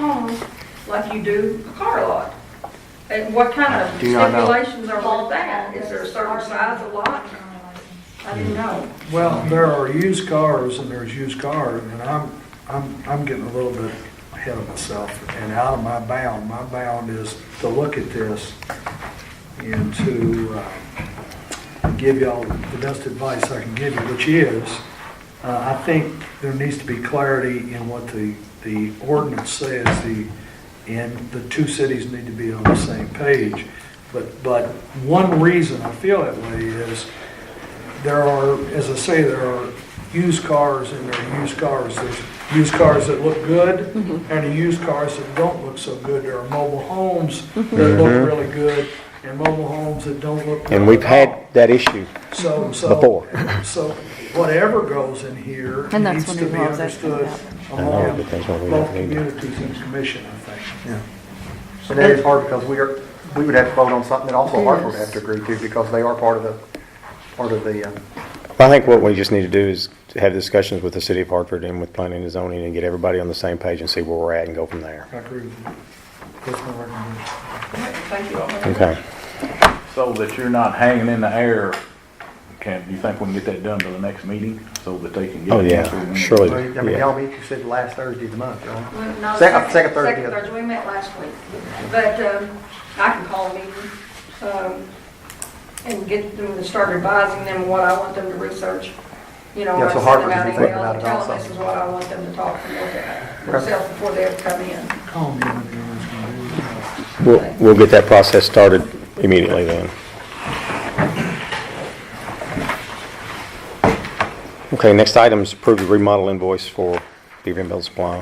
home like you do a car lot? And what kind of Do not know. stipulations are with that? Is there a certain size of lot? I didn't know. Well, there are used cars and there's used cars, and I'm, I'm, I'm getting a little bit ahead of myself and out of my bound. My bound is to look at this and to uh, give y'all the best advice I can give you, which is, uh, I think there needs to be clarity in what the, the ordinance says, the, and the two cities need to be on the same page. But, but one reason I feel that way is, there are, as I say, there are used cars and there are used cars. There's used cars that look good Mm-hmm. and there are used cars that don't look so good. There are mobile homes that look really good and mobile homes that don't look good. Mm-hmm. And we've at all. had that issue. So, so. Before. So whatever goes in here And that's needs when to the be laws actually understood I know, among but that's what we both have to do. communities and commission, I think. And that is hard because we are, we would have to vote on something that also Hartford would have to agree to because they are part of the, part of the, um, I think what we just need to do is to have discussions with the city of Hartford and with planning and zoning and get everybody on the same page and see where we're at and go from there. I agree with you. That's my recommendation. Thank you all. Okay. So that you're not hanging in the air, can, do you think we can get that done by the next meeting, so that they can get? Oh, it yeah, done through the- surely. I mean, Yeah. y'all meet, you said last Thursday of the month, y'all. Well, no, Second- second Thursday. Second Thursday, we met last week. But um, I can call a meeting um, and get them to start advising them what I want them to research. You know, Yeah, I send so them Harvard out can think emails about and it tell them also. this is what I want them to talk and look at Okay. themselves before they ever come in. Call me when you guys can do it. We'll, we'll get that process started immediately then. Okay, next item is approve the remodel invoice for Beaver Mill Supply,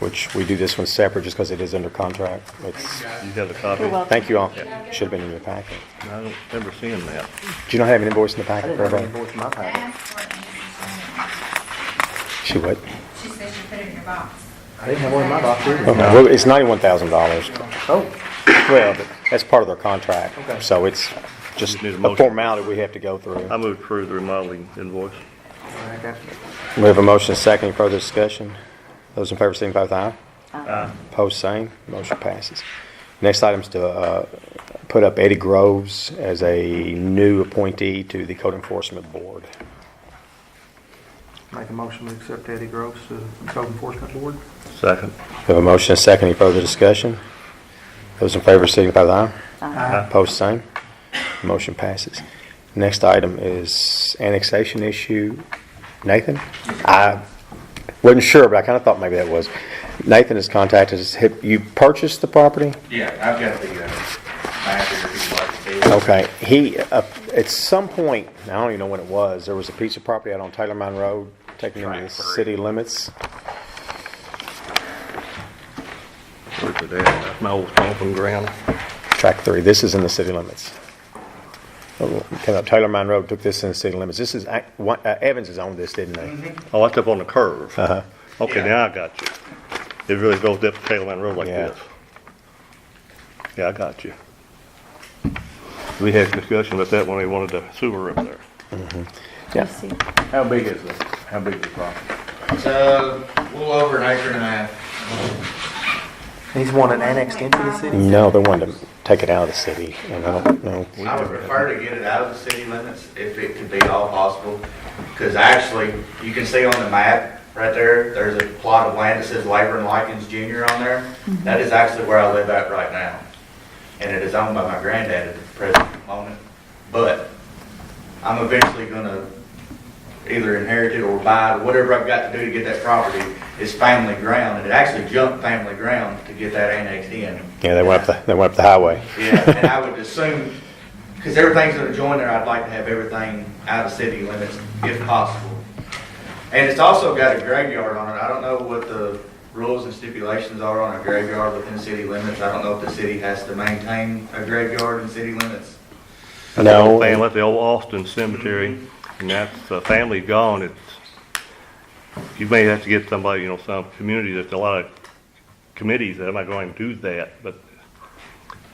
which we do this one separate just because it is under contract. It's, You have a copy? You're welcome. thank you all. Should have been in your packet. I don't remember seeing that. Do you not have an invoice in the I packet didn't for have any everybody? voice in my I packet. asked for it and she She would. sent it. She said she put it in your box. I didn't have one in my box Okay, either. well, it's ninety-one thousand dollars. Oh, Well, but that's part of their contract, so it's just Just need a a motion. formality we have to go through. I moved through the remodeling invoice. I got you. We have a motion, and a second, Any further discussion. Those in favor signify with aye. Aye. Opposed, same. Motion passes. Next item is to uh, put up Eddie Groves as a new appointee to the Code Enforcement Board. Make a motion to accept uh? Eddie Groves to the Code Enforcement Board. Second. We have a motion, and a second, Any further discussion. Those in favor signify with aye. Aye. Opposed, same. Motion passes. Next item is annexation issue. Nathan? I wasn't sure, but I kind of thought maybe that was. Nathan has contacted us. Have you purchased the property? Yeah, I've got the, uh, map here if you'd like to see it. Okay, he, uh, at some point, I don't even know when it was, there was a piece of property out on Taylor Mine Road, taking into the Right, correct. city limits. Where's it at? That's my old stomping ground. Track three, this is in the city limits. Oh, Came up Taylor Mine Road, took this in the city limits. This is, ac- one- uh, Evans has owned this, didn't he? Oh, that's up on the curve. Uh-huh. Okay, Yeah. now I got you. It really goes up Tail End Road like Yeah. this. Yeah, I got you. We had a discussion about that when they wanted the sewer up there. Yeah. see. How big is it? How big is the property? It's, uh, a little over an acre and a half. He's wanted annexed into the city? No, they wanted to take it out of the city, and I don't know. I would prefer to get it out of the city limits if it could be at all possible. Because actually, you can see on the map right there, there's a plot of land that says Labor and Lichens Junior on there. That is actually where I live at right now. And it is owned by my granddad at the present moment. But I'm eventually gonna either inherit it or buy it, whatever I've got to do to get that property is family ground. And it actually jumped family ground to get that annexed in. Yeah, they went up, the they went up the highway. Yeah, and I would assume, because everything's gonna join there, I'd like to have everything out of city limits if possible. And it's also got a graveyard on it. I don't know what the rules and stipulations are on a graveyard within city limits. I don't know if the city has to maintain a graveyard in city limits. No, Family, that's the old Austin Cemetery, and that's, the family gone, it's, you may have to get somebody, you know, some community, there's a lot of committees that are not going to do that, but,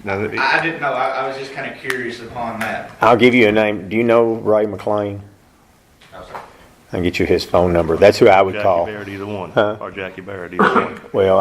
now, that it- I I didn't know. I, I was just kinda curious upon that. I'll give you a name. Do you know Ray McLean? I was like, I'll get you his phone number. That's who I would Jackie call. Barrett either one, Huh? or Jackie Barrett either one. Well,